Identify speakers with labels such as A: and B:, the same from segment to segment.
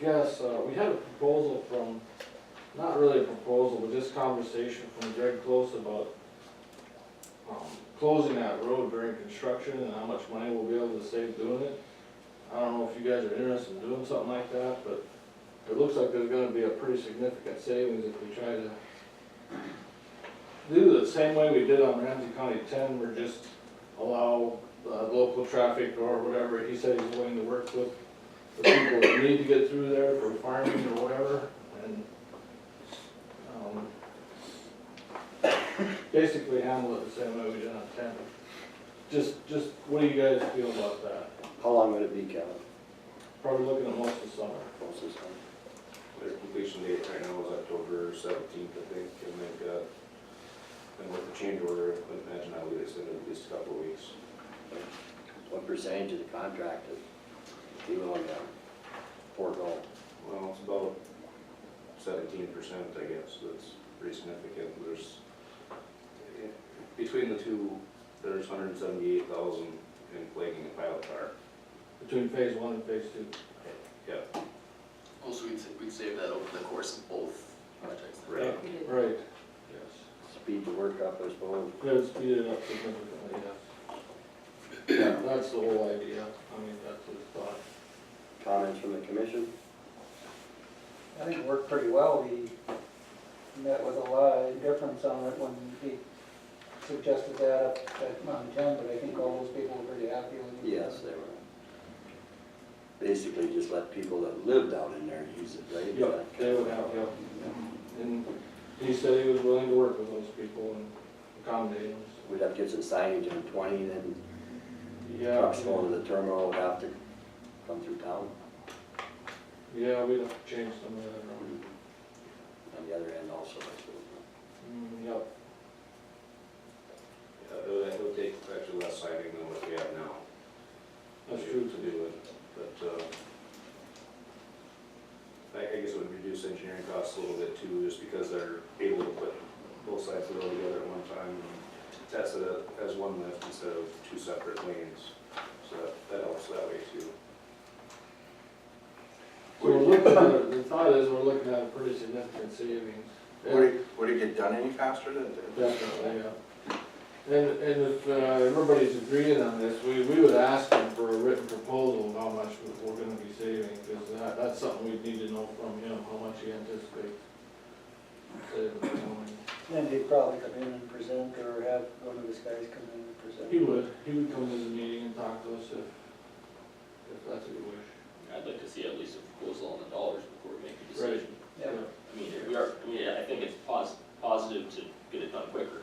A: guess, uh, we had a proposal from, not really a proposal, but just conversation from Greg Close about um, closing that road during construction and how much money we'll be able to save doing it. I don't know if you guys are interested in doing something like that, but it looks like there's gonna be a pretty significant savings if we try to do the same way we did on Ramsey County ten, we're just allow uh, local traffic or whatever, he said he's willing to work with the people that need to get through there for farming or whatever, and, um, basically handle it the same way we did on ten. Just, just, what do you guys feel about that?
B: How long would it be, Kevin?
A: Probably looking at most of summer.
B: What's this one?
C: Their completion date right now is October seventeenth, I think, and they've got, and with the change order, I imagine I'll be extended at least a couple of weeks.
B: What percentage of the contract is you willing to forego?
C: Well, it's about seventeen percent, I guess, that's pretty significant, there's, between the two, there's hundred and seventy-eight thousand in flagging and pilot car.
A: Between phase one and phase two.
C: Yeah,
D: Also, we'd, sa- we'd save that over the course of both projects. then.
C: right,
A: Right. Yes.
B: Speed the work up, I suppose.
A: Could speed it up significantly, yes. Yeah, that's the whole idea. I mean, that's the thought.
B: Comments from the commission?
E: I think it worked pretty well. He met with a lot of difference on it when he suggested that up at Mount Ten, but I think all those people were pretty happy with it.
B: Yes, they were. Basically, just let people that live down in there use it, right? Is
A: Yep,
B: that-
A: they would have, yep. And he said he was willing to work with those people and accommodate them. so.
B: We'd have to get some signage in twenty, then
A: Yeah,
B: trucks going to the terminal would have to come through town.
A: yeah, we'd have to change some of that
B: Mm-hmm.
A: around.
B: On the other end also, I suppose.
A: Mm, Yep,
C: Yeah, it would, it would take actually less siding than what we have now.
A: that's true
C: to
A: too.
C: do it, but, uh, I, I guess it would reduce engineering costs a little bit too, just because they're able to put both sides of the road together at one time and test it as one lift instead of two separate lanes, so that- that helps that way too.
A: So we're looking at, the thought is we're looking at a pretty significant savings.
F: Would it, would it get done any faster than?
A: Definitely, yeah. And, and if uh, everybody's agreeing on this, we, we would ask them for a written proposal of how much we- we're gonna be saving, because that, that's something we'd need to know from him, how much he anticipates. saving.
E: And he'd probably come in and present or have one of his guys come in and present.
A: He would, he would come to the meeting and talk to us if, if that's what you wish.
G: I'd like to see at least a proposal on the dollars before we make a decision.
E: Yeah.
G: I mean, we are, I mean, I think it's pos- positive to get it done quicker,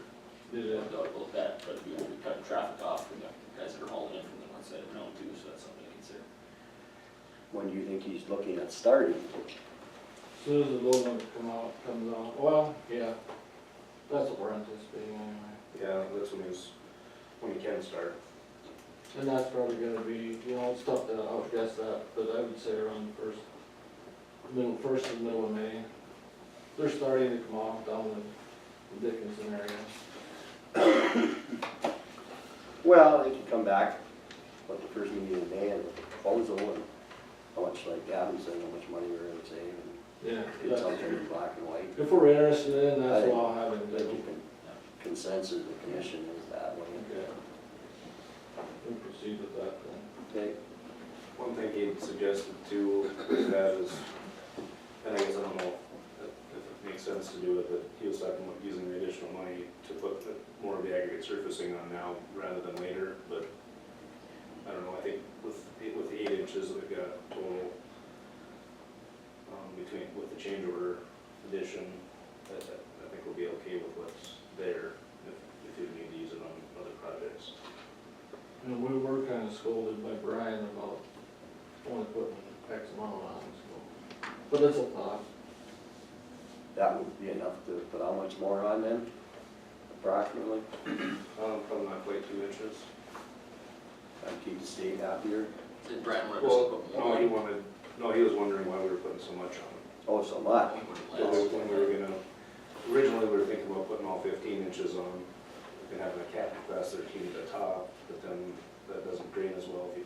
A: Did
G: no
A: it,
G: doubt about that, but we we cut traffic off from the guys that are hauling in from the one side of town too, so that's something to consider.
B: When do you think he's looking at starting?
A: as soon as the low one come out, comes out, well, yeah, that's what we're anticipating anyway.
C: Yeah, that's when he's, when you can start.
A: And that's probably gonna be, you know, it's tough to outguess that, but I would say around the first, middle, first and middle of May. They're starting to come off down in the Dickinson area.
B: Well, they could come back, what, the first meeting in May, and proposal, and how much, like Gavin said, how much money we're gonna save, and
A: Yeah.
B: get something in black and white.
A: If we're interested in, that's what I'll have him
B: I think
A: do.
B: the consensus of the commission is that way.
A: Okay. We'll proceed with that then.
B: Okay,
C: One thing he suggested too with that is, and I guess I don't know if it makes sense to do it, but he was talking about using the additional money to put the- more of the aggregate surfacing on now rather than later, but I don't know, I think with, the- with the eight inches that we've got total, um, between, with the change order addition, that, that, I think we'll be okay with what's there if, if we need to use it on other projects.
A: And we were kinda scolded by Brian about only putting X amount on, so. But it's a thought.
B: that would be enough to put how much more on then, approximately,
C: Um, probably not quite two inches.
B: and keep the state happier,
D: Did Brian want to just
C: Well,
D: put
C: no, he
D: more?
C: wanted, no, he was wondering why we were putting so much on.
B: oh, so much.
C: it. When we- When we were gonna, originally we were thinking about putting all fifteen inches on, and having a cap across thirteen at the top, but then that doesn't drain as well if you